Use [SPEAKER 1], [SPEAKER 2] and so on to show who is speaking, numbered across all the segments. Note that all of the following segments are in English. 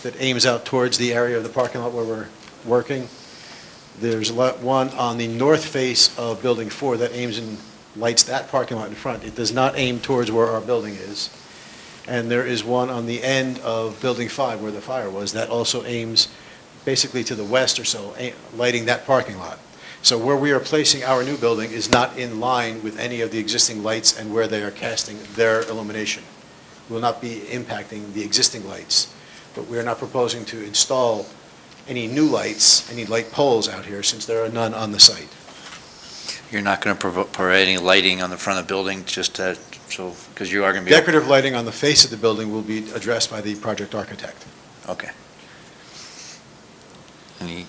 [SPEAKER 1] that aims out towards the area of the parking lot where we're working. There's lot one on the north face of Building 4 that aims and lights that parking lot in front. It does not aim towards where our building is. And there is one on the end of Building 5 where the fire was that also aims basically to the west or so, a- lighting that parking lot. So where we are placing our new building is not in line with any of the existing lights and where they are casting their illumination. Will not be impacting the existing lights, but we are not proposing to install any new lights, any light poles out here, since there are none on the site.
[SPEAKER 2] You're not going to provide any lighting on the front of the building, just to, so, because you are going to be...
[SPEAKER 1] Decorative lighting on the face of the building will be addressed by the project architect.
[SPEAKER 2] Okay. Any,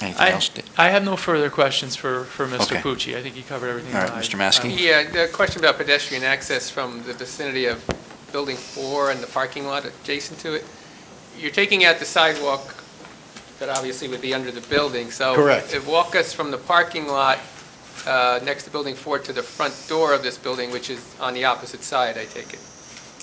[SPEAKER 2] anything
[SPEAKER 3] I,
[SPEAKER 2] else?
[SPEAKER 3] I have no further questions for, for Mr.
[SPEAKER 2] Okay.
[SPEAKER 3] Pucci. I think he covered everything.
[SPEAKER 2] All right,
[SPEAKER 3] that I-
[SPEAKER 2] Mr.
[SPEAKER 1] Um,
[SPEAKER 2] Maskey?
[SPEAKER 4] Yeah, the question about pedestrian access from the vicinity of Building 4 and the parking lot adjacent to it, you're taking out the sidewalk that obviously would be under the building, so...
[SPEAKER 1] Correct.
[SPEAKER 4] if- Walk us from the parking lot uh, next to Building 4 to the front door of this building, which is on the opposite side, I take it.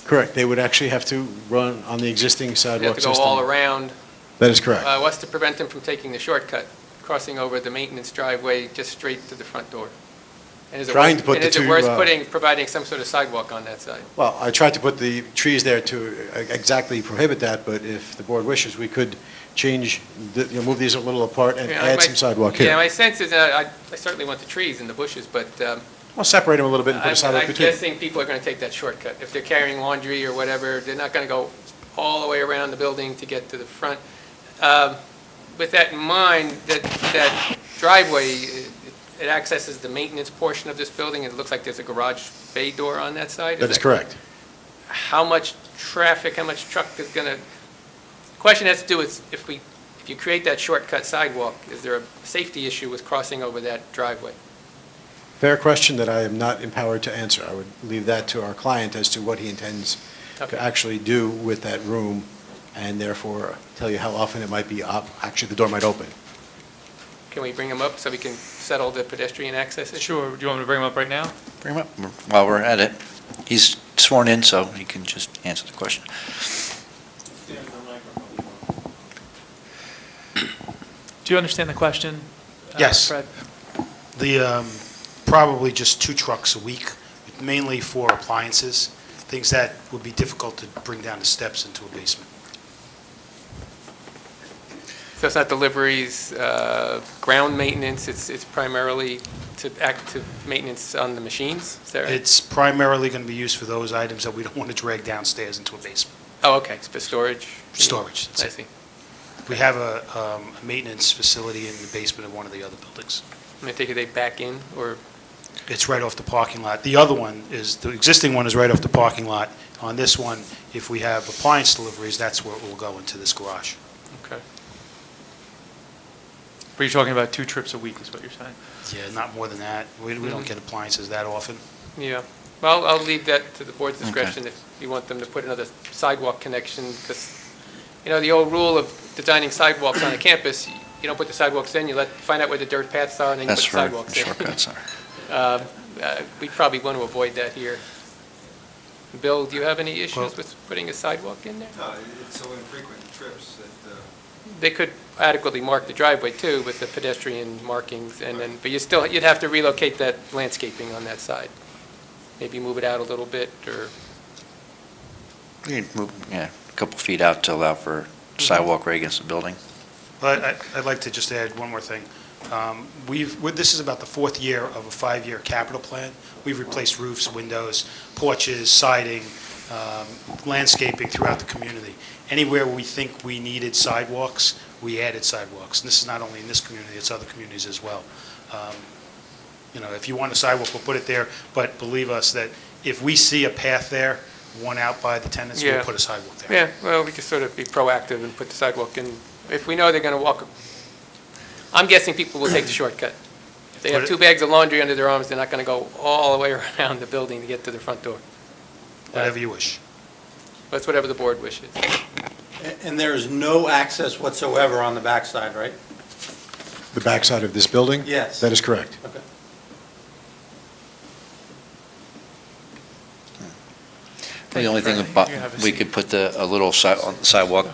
[SPEAKER 1] Correct, they would actually have to run on the existing
[SPEAKER 4] You have
[SPEAKER 1] sidewalk
[SPEAKER 4] to
[SPEAKER 1] system.
[SPEAKER 4] go all around.
[SPEAKER 1] That is correct.
[SPEAKER 4] Uh, What's to prevent them from taking the shortcut, crossing over the maintenance driveway just straight to the front door? And is it
[SPEAKER 1] Trying
[SPEAKER 4] worth-
[SPEAKER 1] to put the
[SPEAKER 4] And
[SPEAKER 1] two,
[SPEAKER 4] is
[SPEAKER 1] uh,
[SPEAKER 4] it worth putting, providing some sort of sidewalk on that side?
[SPEAKER 1] Well, I tried to put the trees there to e-, exactly prohibit that, but if the board wishes, we could change, the- you know, move these a little apart and
[SPEAKER 4] Yeah,
[SPEAKER 1] add
[SPEAKER 4] my-
[SPEAKER 1] some sidewalk here.
[SPEAKER 4] Yeah, my sense is, that I I certainly want the trees and the bushes, but um,
[SPEAKER 1] Well, separate them a little bit and put
[SPEAKER 4] I'm
[SPEAKER 1] a sidewalk
[SPEAKER 4] I'm
[SPEAKER 1] between. them.
[SPEAKER 4] guessing people are going to take that shortcut. If they're carrying laundry or whatever, they're not going to go all the way around the building to get to the front. Um, With that in mind, that that driveway, it it accesses the maintenance portion of this building, and it looks like there's a garage bay door on that side.
[SPEAKER 1] That is correct.
[SPEAKER 4] How much traffic, how much truck is going to, the question has to do with if we, if you create that shortcut sidewalk, is there a safety issue with crossing over that driveway?
[SPEAKER 1] Fair question that I am not empowered to answer. I would leave that to our client as to what he intends
[SPEAKER 4] Okay.
[SPEAKER 1] to actually do with that room, and therefore tell you how often it might be, op- actually, the door might open.
[SPEAKER 4] Can we bring him up so we can settle the pedestrian access issue?
[SPEAKER 3] Sure, do you want me to bring him up right now?
[SPEAKER 2] Bring him up while we're at it. He's sworn in, so he can just answer the question.
[SPEAKER 3] Do you understand the question? uh,
[SPEAKER 5] Yes.
[SPEAKER 3] Fred?
[SPEAKER 5] The, um, probably just two trucks a week, mainly for appliances, things that would be difficult to bring down the steps into a basement.
[SPEAKER 4] So it's not deliveries, uh, ground maintenance, it's it's primarily to act to maintenance on the machines? Is that right?
[SPEAKER 5] It's primarily going to be used for those items that we don't want to drag downstairs into a basement,
[SPEAKER 4] Oh, okay, it's for storage?
[SPEAKER 5] storage. that's
[SPEAKER 4] I
[SPEAKER 5] it.
[SPEAKER 4] see.
[SPEAKER 5] We have a um, a maintenance facility in the basement of one of the other buildings.
[SPEAKER 4] I'm going to take it they back in, or,
[SPEAKER 5] It's right off the parking lot. The other one is, the existing one is right off the parking lot. On this one, if we have appliance deliveries, that's where it will go into this garage.
[SPEAKER 4] okay.
[SPEAKER 3] Were you talking about two trips a week is what you're saying?
[SPEAKER 5] Yeah, not more than that. We we don't
[SPEAKER 4] Mhm.
[SPEAKER 5] get appliances that often.
[SPEAKER 4] Yeah, well, I'll leave that to the board's discretion if you want them to put another sidewalk connection, because, you know, the old rule of designing sidewalks on a campus, you don't put the sidewalks in, you let, find out where the dirt paths are, and then you put the
[SPEAKER 2] That's where
[SPEAKER 4] sidewalks in.
[SPEAKER 2] shortcuts are.
[SPEAKER 4] Um, uh, We probably want to avoid that here. Bill, do you have any
[SPEAKER 5] Well-
[SPEAKER 4] issues with putting a sidewalk in there?
[SPEAKER 6] No, Uh, it's so infrequent trips that, uh,
[SPEAKER 4] They could adequately mark the driveway, too, with the pedestrian markings, and then, but you still, you'd have to relocate that landscaping on that side. Maybe move it out a little bit, or
[SPEAKER 2] You can move, Yeah, a couple feet out to allow for
[SPEAKER 4] Mm-hmm.
[SPEAKER 2] sidewalk right against the building.
[SPEAKER 5] But I- I'd like to just add one more thing. Um, We've, we're- this is about the fourth year of a five-year capital plan. We've replaced roofs, windows, porches, siding, um, landscaping throughout the community. Anywhere we think we needed sidewalks, we added sidewalks. And this is not only in this community, it's other communities as well. Um, You know, if you want a sidewalk, we'll put it there, but believe us that if we see a path there, one out by the tenants, we'll
[SPEAKER 4] Yeah.
[SPEAKER 5] put a sidewalk there.
[SPEAKER 4] Yeah, well, we could sort of be proactive and put the sidewalk in. If we know they're going to walk, I'm guessing people will take the shortcut. If they have two bags of laundry under their arms, they're not going to go all the way around the building to get to the front door.
[SPEAKER 5] Whatever you wish.
[SPEAKER 4] That's whatever the board wishes.
[SPEAKER 7] A- And there is no access whatsoever on the backside, right?
[SPEAKER 1] The backside of this building?
[SPEAKER 7] Yes.
[SPEAKER 1] That is correct.
[SPEAKER 7] Okay.
[SPEAKER 2] The only thing
[SPEAKER 3] Fred, you have
[SPEAKER 2] about,
[SPEAKER 3] a
[SPEAKER 2] we
[SPEAKER 3] seat.
[SPEAKER 2] could put the, a little si- on the sidewalk